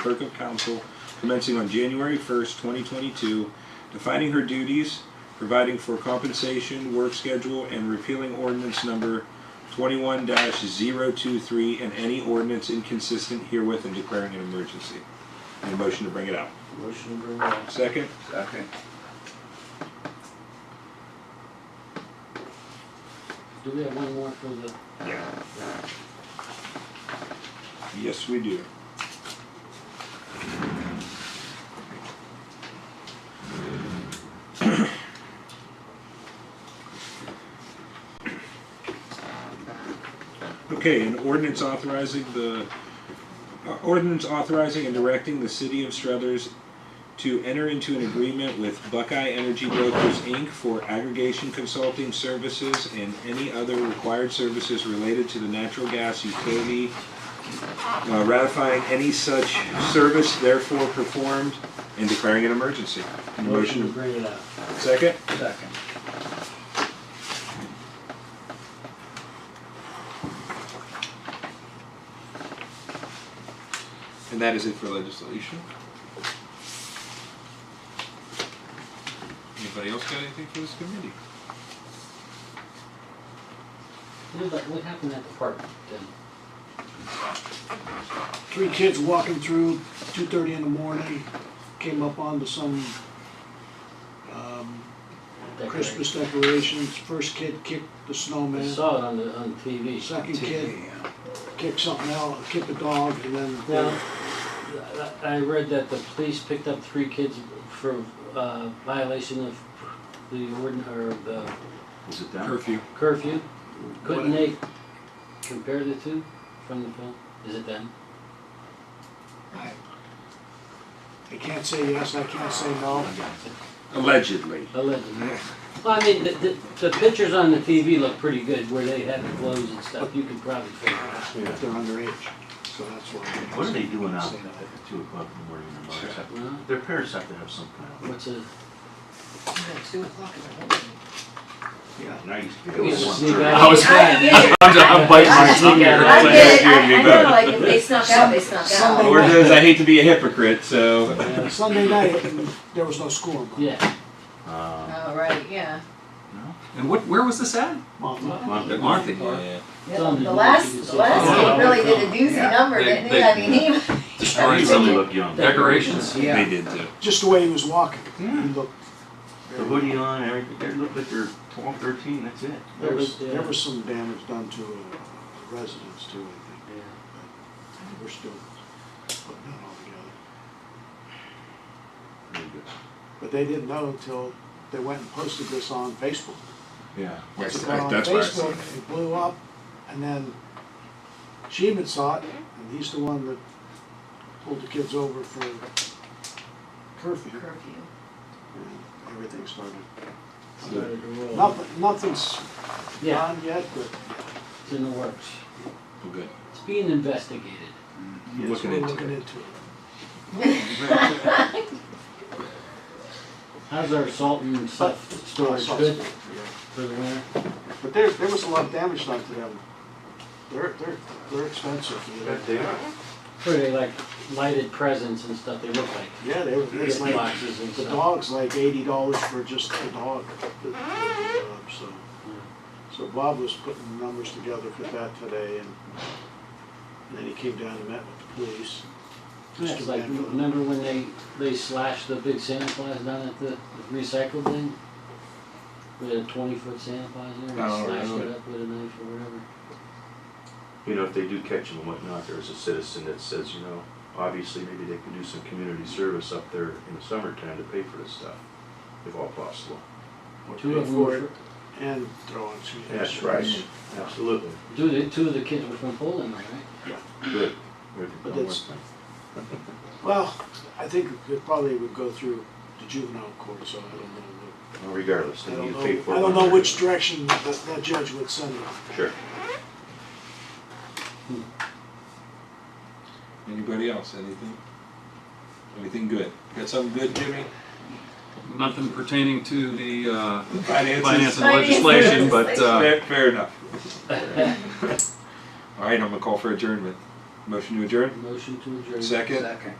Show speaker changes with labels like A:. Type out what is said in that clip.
A: clerk of council commencing on January 1st, 2022, defining her duties, providing for compensation, work schedule, and repealing ordinance number 21-023 and any ordinance inconsistent herewith and declaring an emergency. Need a motion to bring it out.
B: Motion to bring it up.
A: Second?
C: Second.
B: Do we have one more for the,
A: Yeah. Yes, we do. Okay, an ordinance authorizing the, uh, ordinance authorizing and directing the city of Struthers to enter into an agreement with Buckeye Energy Brokers, Inc. for aggregation consulting services and any other required services related to the natural gas utility, uh, ratifying any such service therefore performed and declaring an emergency.
B: motion to bring it up?
A: Second?
C: Second.
A: And that is it for legislation. Anybody else got anything for this committee?
B: What about- What happened at the park then?
D: Three kids walking through, two thirty in the morning, came up onto some um,
B: That
D: Christmas decorations. First kid kicked the
B: guy? I
D: snowman.
B: saw it on the, on TV.
D: Second kid
C: Yeah.
D: kicked something else, kicked a dog, and
B: Now,
D: then
B: I- I read that the police picked up three kids for uh, violation of the ordin, or the
C: Was it done?
A: Curfew.
B: curfew. Couldn't they compare the two from the film? Is it them?
D: I can't say yes, I can't say no.
A: Allegedly.
B: Allegedly. Well, I mean, the, the, the pictures on the TV look pretty good where they have the clothes and stuff. You could probably figure it out.
D: If they're underage, so that's why.
E: What are they doing out at the two o'clock in the morning in the bars?
B: Well,
E: Their parents have to have some kind
B: What's a,
F: Two o'clock in the morning.
E: of, yeah, and I used to.
B: we
E: do it
B: just
E: once
B: sneak
E: or-
B: out.
G: I was-
F: I get it,
G: I'm biting my
B: Sneak out.
G: tongue here.
F: I
G: Like,
F: get it, I, I know, like, if they snuck out, they snuck out.
D: Sunday
A: Or
D: night,
A: does I hate to be a hypocrite, so.
B: Yeah.
D: Sunday night, and there was no school.
B: Yeah,
E: Uh,
F: Oh, right, yeah.
G: And what, where was this at?
D: Mom,
E: Monday.
G: Market.
F: The last, the last
G: Yeah.
F: kid really did a doozy
E: Yeah.
F: number,
G: They-
F: didn't he?
G: they-
F: I mean, he,
E: They
G: Destroyed
E: really
G: some
E: look young. The
G: decorations.
A: They did too.
D: Just the way he was walking, he
E: Hmm.
D: looked.
E: hoodie on, everything, they look like they're twelve, thirteen, that's it.
D: There was,
B: uh,
D: there was some damage done to uh, residents too, I think.
B: Yeah.
D: We're still putting that all together.
E: Really good.
D: But they didn't know until they went and posted this on Facebook.
E: Yeah.
D: It's been on Facebook, it blew up, and then Sheehan saw it, and he's the one that pulled the kids over for curfew.
F: curfew.
D: and Everything started.
B: Started to
A: Oh.
B: roll.
D: Nothing, nothing's
B: Yeah,
D: done yet, but
B: it's in the works.
A: Well, good.
B: It's being investigated.
D: we're
A: Looking into
D: looking
A: it.
D: into it.
B: How's our salt and stuff storage good for the winter?
D: But there, there was a lot of damage done to them. They're, they're, they're expensive. you know.
E: That they are.
B: Where they like lighted presents and stuff, they look like
D: Yeah, they were, it's
B: gift
D: like,
B: boxes and
D: The
B: stuff.
D: dog's like eighty dollars for just the dog, the- the job, so. So Bob was putting the numbers together for that today and, and then he came down and met with the police.
B: Yeah, It's like, remember when they, they slashed the big Santa Claus down at the recycle thing? With a twenty foot Santa Claus there
A: Oh,
B: and slashed
A: really?
B: it up with a knife or whatever.
E: You know, if they do catch them and whatnot, there's a citizen that says, you know, obviously maybe they can do some community service up there in the summertime to pay for this stuff, if all possible.
B: Two of
D: pay
B: them were,
D: for
B: fr-
D: And throwing some.
E: That's right, absolutely,
B: two of the, two of the kids were from Poland, right?
E: good. We're doing
D: But
E: one
D: that's-
E: thing.
D: Well, I think it probably would go through the juvenile court, so I don't know.
E: Well, Regardless, they need to
D: what-
E: pay for it.
D: I don't know, I don't know
E: one
D: which
E: way
D: direction that, that judge would send it.
E: or- Sure.
A: Anybody else? Anything? Anything good? Got something good, Jimmy?
G: Nothing pertaining to the uh,
A: Finances?
G: finance and
F: Finances.
G: legislation, but uh,
A: Fair, fair enough. All right, I'm gonna call for adjournment. Motion to adjourn?
B: Motion to adjourn.
A: Second?